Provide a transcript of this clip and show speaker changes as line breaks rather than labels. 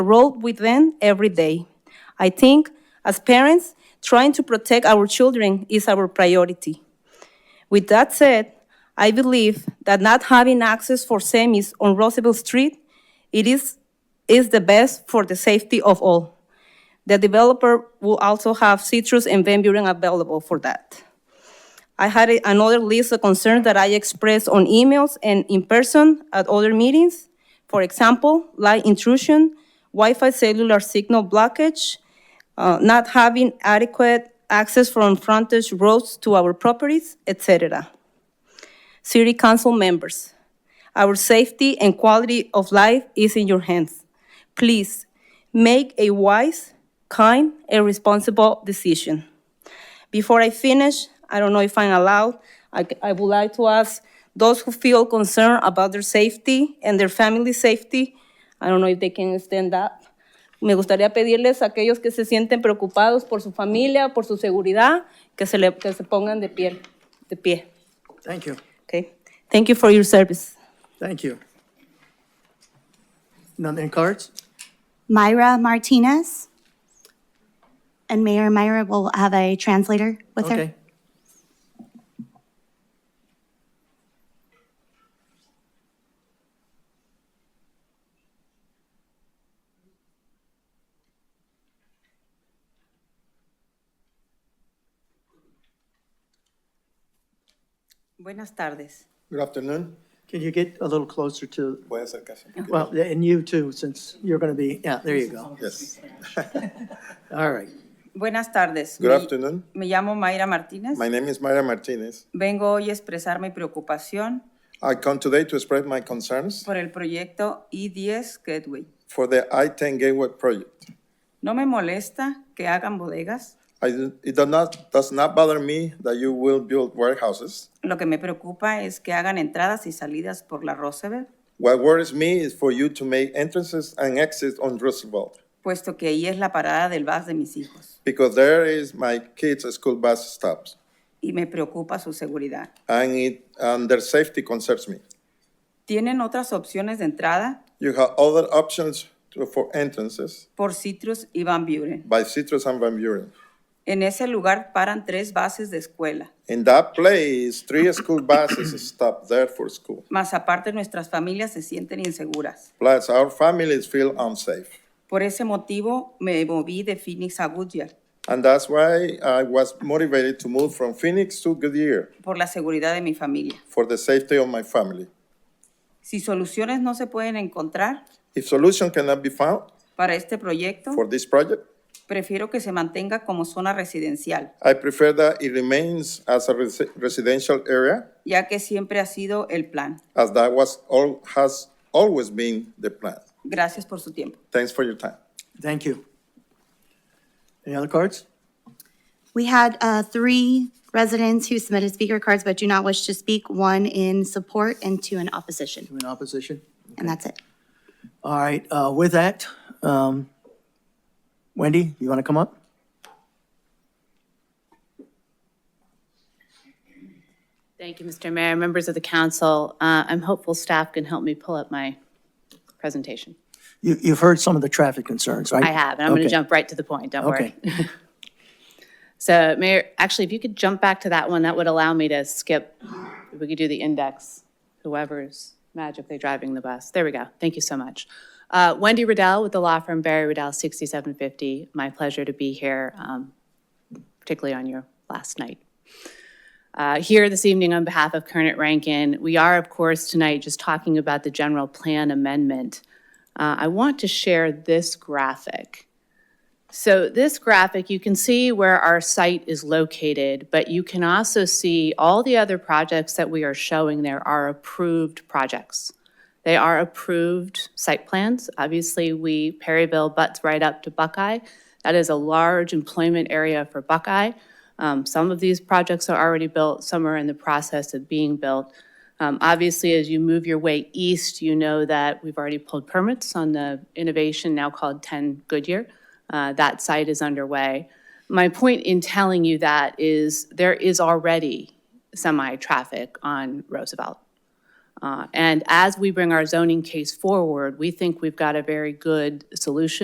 road with them every day. I think, as parents, trying to protect our children is our priority. With that said, I believe that not having access for semis on Roosevelt Street, it is, is the best for the safety of all. The developer will also have citrus and Van Buren available for that. I had a- another list of concerns that I expressed on emails and in person at other meetings. For example, light intrusion, Wi-Fi cellular signal blockage, uh, not having adequate access from frontage roads to our properties, etc. City council members, our safety and quality of life is in your hands. Please, make a wise, kind, and responsible decision. Before I finish, I don't know if I'm allowed, I, I would like to ask those who feel concerned about their safety and their family's safety, I don't know if they can stand up. Me gustaría pedirles a aquellos que se sienten preocupados por su familia, por su seguridad, que se, le- que se pongan de pie, de pie,
Thank you,
okay? Thank you for your service.
thank you. None in cards?
Myra Martinez. And Mayor Myra will have a translator with her.
Okay.
Buenas tardes.
Good afternoon.
Can you get a little closer to,
Voy a acercarse un poquito.
well, and you too, since you're going to be, yeah, there you go.
Yes.
All right.
Buenas tardes.
Good
Me-
afternoon.
Me llamo Mayra Martínez.
My name is Mayra Martinez.
Vengo hoy a expresar mi preocupación
I come today to express my concerns
por el proyecto I-10 Gateway.
for the I-10 Gateway project.
No me molesta que hagan bodegas.
I, it does not, does not bother me that you will build warehouses.
Lo que me preocupa es que hagan entradas y salidas por la Roosevelt,
What worries me is for you to make entrances and exits on Roosevelt,
puesto que ahí es la parada del bus de mis hijos
because there is my kids' school bus stops,
y me preocupa su seguridad.
and it, and their safety concerns me.
Tienen otras opciones de entrada
You have other options to- for entrances
por Citrus y Van Buren.
by Citrus and Van Buren.
En ese lugar paran tres bases de escuela,
In that place, three school buses stop there for school.
más aparte nuestras familias se sienten inseguras.
Plus, our families feel unsafe.
Por ese motivo me moví de Phoenix a Goodyear,
And that's why I was motivated to move from Phoenix to Goodyear
por la seguridad de mi familia.
for the safety of my family.
Si soluciones no se pueden encontrar
If solution cannot be found
para este proyecto,
for this project,
prefiero que se mantenga como zona residencial,
I prefer that it remains as a resi- residential area,
ya que siempre ha sido el plan.
as that was all, has always been the plan.
Gracias por su tiempo.
Thanks for your time.
Thank you. Any other cards?
We had uh, three residents who submitted speaker cards but do not wish to speak, one in support and two in opposition.
In opposition?
And that's it.
All right, uh, with that, um, Wendy, you want to come up?
Thank you, Mr. Mayor, members of the council. Uh, I'm hopeful staff can help me pull up my presentation.
You, you've heard some of the traffic concerns, right?
I have, and I'm going to
Okay.
jump right to the point, don't worry.
Okay,
So Mayor, actually, if you could jump back to that one, that would allow me to skip, if we could do the index, whoever's magically driving the bus. There we go. Thank you so much. Uh, Wendy Riddell with the law firm Barry Riddell, 6750. My pleasure to be here, um, particularly on your last night. Uh, Here this evening on behalf of Kernet Rankin, we are, of course, tonight just talking about the general plan amendment. Uh, I want to share this graphic. So this graphic, you can see where our site is located, but you can also see all the other projects that we are showing there are approved projects. They are approved site plans. Obviously, we, Perryville butts right up to Buckeye. That is a large employment area for Buckeye. Um, Some of these projects are already built, some are in the process of being built. Um, Obviously, as you move your way east, you know that we've already pulled permits on the innovation now called 10 Goodyear. Uh, That site is underway. My point in telling you that is there is already semi-traffic on Roosevelt. Uh, And as we bring our zoning case forward, we think we've got a very good solution